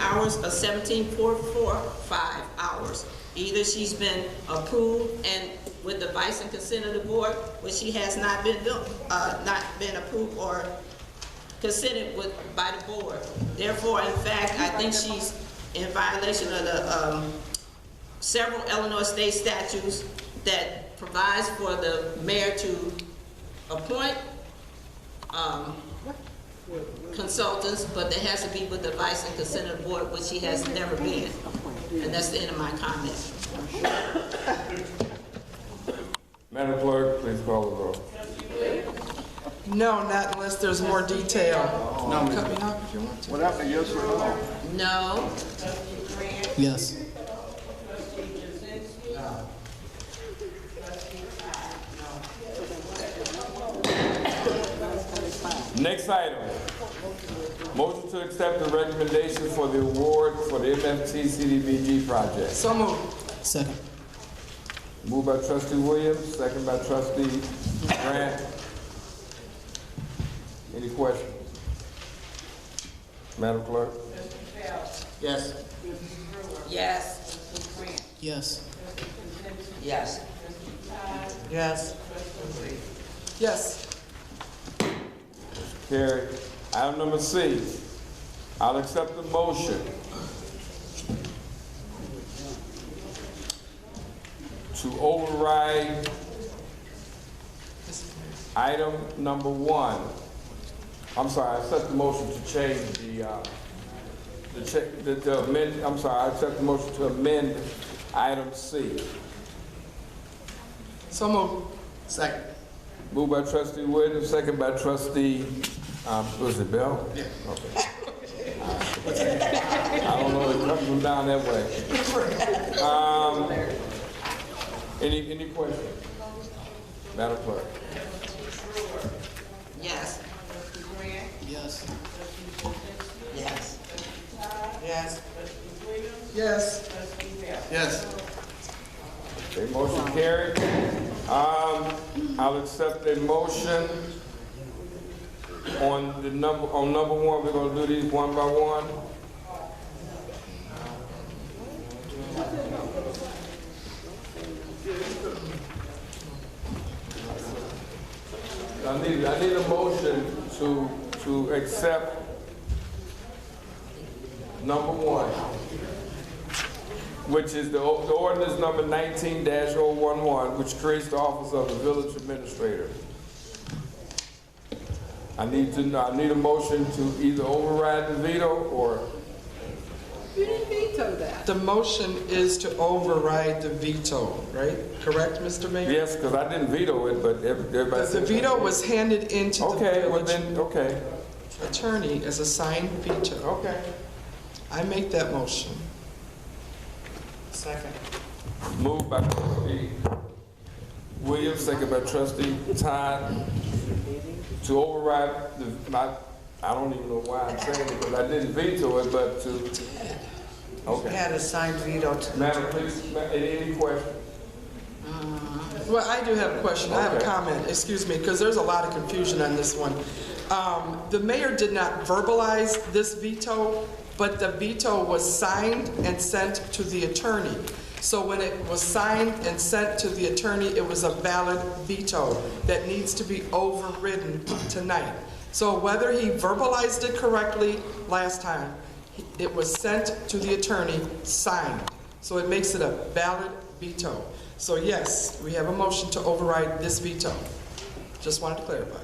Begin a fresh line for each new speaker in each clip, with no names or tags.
hours of seventeen point four five hours. Either she's been approved and with the vice and consent of the board, or she has not been, built- uh, not been approved or consented with, by the board. Therefore, in fact, I think she's in violation of the, um, several Illinois state statutes that provides for the mayor to appoint, um, consultants, but that has to be with the advice and consent of the board, which she has never been. And that's the end of my comment.
Madam Clerk, please call the roll.
No, not unless there's more detail. Cut me off if you want to.
What happened, yes or no?
No,
Yes.
Next item. Motion to accept the recommendation for the award for the MFT CDBG project.
So moved.
Second.
Moved by trustee Williams, second by trustee Grant. Any questions? Madam Clerk?
Yes. Yes.
Yes.
Yes.
Yes. Yes.
Carried. Item number C, I'll accept the motion to override item number one. I'm sorry, I accept the motion to change the, uh, the cha- the, the amend, I'm sorry, I accept the motion to amend item C.
So moved. Second.
Moved by trustee Williams, second by trustee, um, was it Bell? Yeah. I don't know, it comes from down that way. Um, any, any questions? Madam Clerk?
Yes.
Yes.
Yes.
Yes. Yes.
Yes.
Okay, motion carried. Um, I'll accept a motion on the number, on number one, we're gonna do these one by one. I need, I need a motion to, to accept number one, which is the, o- the ordinance number nineteen 11 which creates the office of the village administrator. I need to, know- I need a motion to either override the veto or,
The motion is to override the veto, right? Correct, Mr. Mayor?
yes, because I didn't veto it, but ev- everybody.
The
said-
veto was handed in to the
Okay, well
village
then, oh. okay,
attorney as a signed veto.
okay.
I make that motion. Second.
Moved by trustee Williams, second by trustee Todd, to override the, my, I don't even know why I'm saying it, because I didn't veto it, but to, okay.
Had a signed veto to
Madam, please, ma- any any questions?
Well, I do have a question, I have a
Okay.
comment, excuse me, because there's a lot of confusion on this one. Um, The mayor did not verbalize this veto, but the veto was signed and sent to the attorney. So when it was signed and sent to the attorney, it was a valid veto that needs to be overridden tonight. So whether he verbalized it correctly last time, it was sent to the attorney, signed. So it makes it a valid veto. So yes, we have a motion to override this veto. Just wanted to clarify.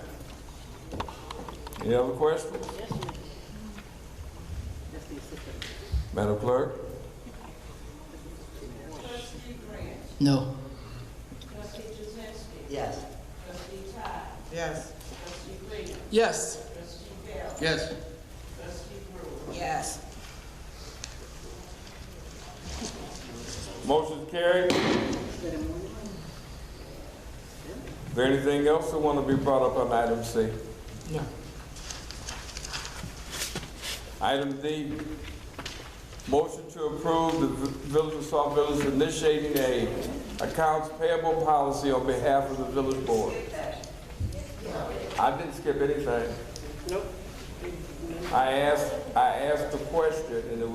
Any other questions? Madam Clerk?
No.
Yes.
Yes. Yes.
Yes.
Yes.
Motion carried. Is there anything else that want to be brought up on item C?
No.
Item D, motion to approve the Vi- Village of South Village initiating a accounts payable policy on behalf of the village board. I didn't skip anything. Nope. I asked, I asked the question, and it was